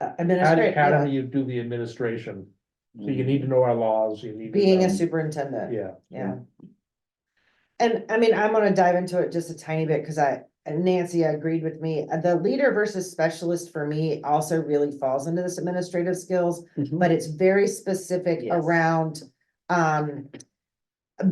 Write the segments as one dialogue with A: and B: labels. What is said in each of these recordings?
A: How,
B: administrator,
A: how do
B: yeah,
A: you do the administration? So
C: Mm.
A: you need to know our laws, you need. to
B: being a
A: know-
B: superintendent,
A: Yeah,
B: yeah. And I mean, I'm gonna dive into it just a tiny bit, cause I, Nancy agreed with me, Uh, the leader versus specialist for me also really falls into this administrative skills.
A: Mhm.
B: But it's very specific
D: Yes.
B: around, um.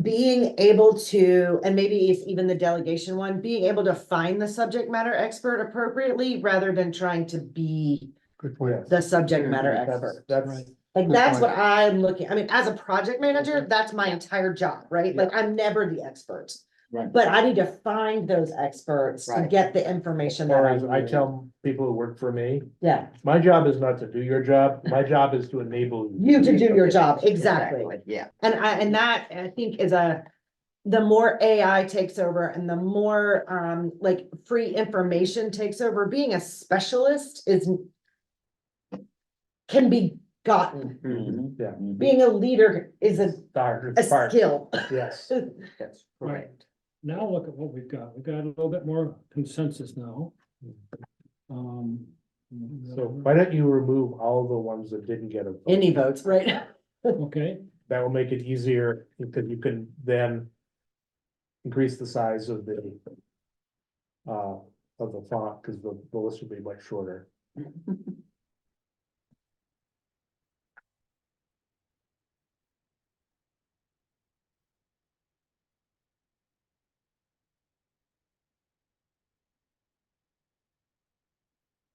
B: Being able to, and maybe if even the delegation one, being able to find the subject matter expert appropriately rather than trying to be
C: Good
A: yeah.
C: point.
B: the subject matter
C: That's-
B: expert.
C: That's
A: Right.
C: right.
B: Like,
C: Good
B: that's
C: point.
B: what I'm looking, I mean, as a project manager, that's my entire job, right? Like, I'm never the expert.
D: Right.
B: But I need to find those experts to
D: Right.
B: get the information that
A: Or
B: I,
A: as I tell people who work for me,
B: yeah,
A: my job is not to do your job, my job is to enable you.
B: you to do your job, exactly.
D: Yeah,
B: And I, and that, I think is a, the more AI takes over and the more, um, like, free information takes over, being a specialist is can be gotten.
D: Mhm.
A: Yeah.
B: Being a leader is a,
A: Darn
B: a
A: part,
B: skill.
A: yes.
D: that's
C: Right. Now look at what we've got. We've got a little bit more consensus now. Um.
A: So why don't you remove all the ones that didn't get a vote?
B: Any votes, right?
C: Okay,
A: That will make it easier, because you can then increase the size of the uh, of the font, because the, the list will be much shorter.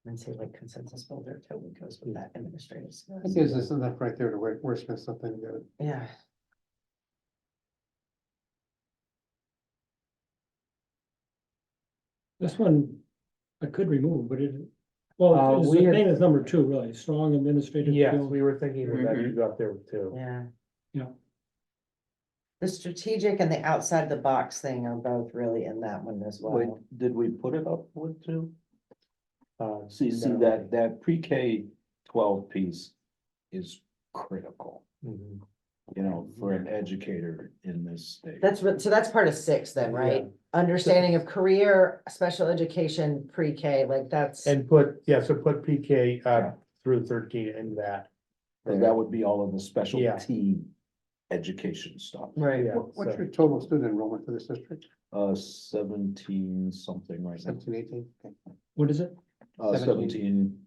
B: And say like consensus builder totally goes with that administrative.
E: That gives us enough right there to wor- wordsmith something good.
B: Yeah.
C: this one I could remove, but it, well,
A: Uh,
C: it's-
A: we
C: it's the
A: had-
C: thing is number two, really, strong administrative
A: Yes,
C: skills.
A: we were thinking of that
F: Mm-hmm.
A: you got there too.
B: Yeah.
C: Yeah.
B: The strategic and the outside the box thing are both really in that one as
D: Wait,
B: well.
D: did we put it up with two?
A: Uh,
D: See, see,
A: no.
D: that, that pre-K twelve piece is critical,
A: Mhm.
D: you know, for an educator in this state.
B: That's what, so that's part of six then, right? Understanding of career, special education, pre-K, like that's,
A: And put, yeah, so put PK uh
D: Yeah.
A: through thirteen in that.
D: And that would be all of the specialty education stuff.
B: right,
A: Yeah,
E: What- What's
A: so-
E: your total student enrollment for this district?
D: Uh, seventeen something right now,
E: Seventeen, eighteen? Okay.
C: What is it?
D: uh,
E: Seventeen.
D: seventeen.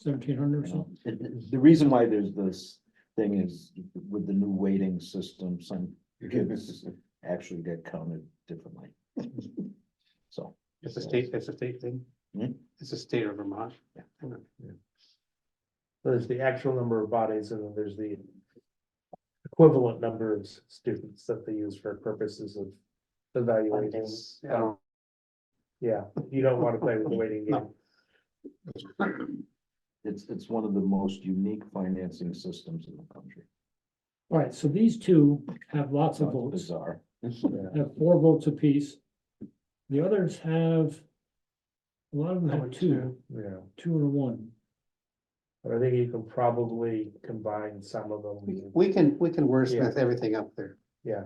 C: Seventeen hundred or
D: you know.
C: something?
D: It- it- The reason why there's this thing is with the new weighting system, some kids actually get counted differently. So.
E: It's a state, it's a state thing.
D: Hmm?
E: It's a state of Vermont.
A: There's the actual number of bodies and then there's the equivalent number of s- students that they use for purposes of evaluating.
E: I don't-
A: Yeah, you don't want to play with the waiting game.
D: It's, it's one of the most unique financing systems in the country.
C: All right, so these two have lots of
D: It's
C: votes.
D: Bizarre.
C: have four votes apiece. The others have, a lot of them have
E: Only
C: two,
A: Yeah,
C: two or one.
A: but I think you can probably combine some of
E: We
A: them.
E: we can, we can wordsmith everything up there.
C: Yeah.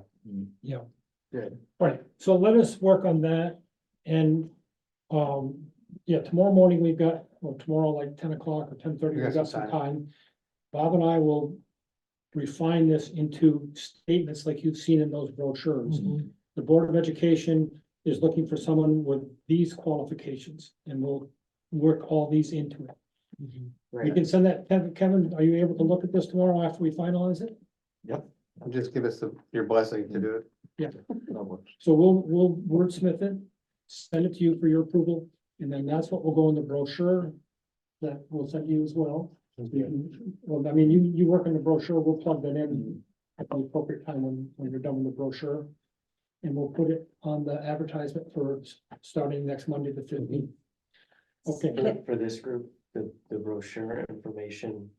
D: Good.
C: All right, so let us work on that and, um, yeah, tomorrow morning we've got, or tomorrow like ten o'clock or ten thirty,
E: You got
C: we've got
E: some
C: some time. Bob and I will refine this into statements like you've seen in those brochures.
E: Mm-hmm.
B: Mhm.
C: The Board of Education is looking for someone with these qualifications and we'll work all these into it.
E: Mm-hmm.
C: We
B: right.
C: can send that, Kevin- Kevin, are you able to look at this tomorrow after we finalize it?
E: Just give us the- your blessing to do it.
D: That works.
C: So we'll, we'll wordsmith it, send it to you for your approval, and then that's what will go in the brochure that we'll send you as well. Well, I mean, you, you work on the brochure, we'll plug that in at the appropriate time when, when you're done with the brochure. And we'll put it on the advertisement for s- starting next Monday, the fifteenth. Okay,
F: For- For this group, the, the brochure information,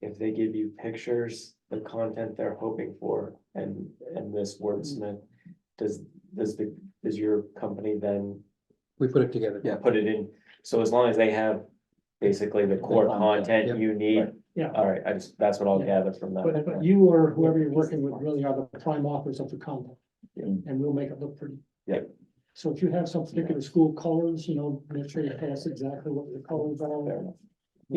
F: if they give you pictures, the content they're hoping for and, and this wordsmith, does, does the, does your company then
E: We put it together.
D: Yeah.
F: put it in? So as long as they have basically the core
D: content,
F: content
E: yep,
F: you need,
D: right.
C: yeah,
F: all right, I just, that's what I'll
C: Yeah.
F: gather from that.
C: but, but you or whoever you're working with really are the prime authors of the content.
D: Yeah.
C: and we'll make it look pretty.
D: Yeah.
C: So if you have some particular school colors, you know, make sure you tell us exactly what the colors are.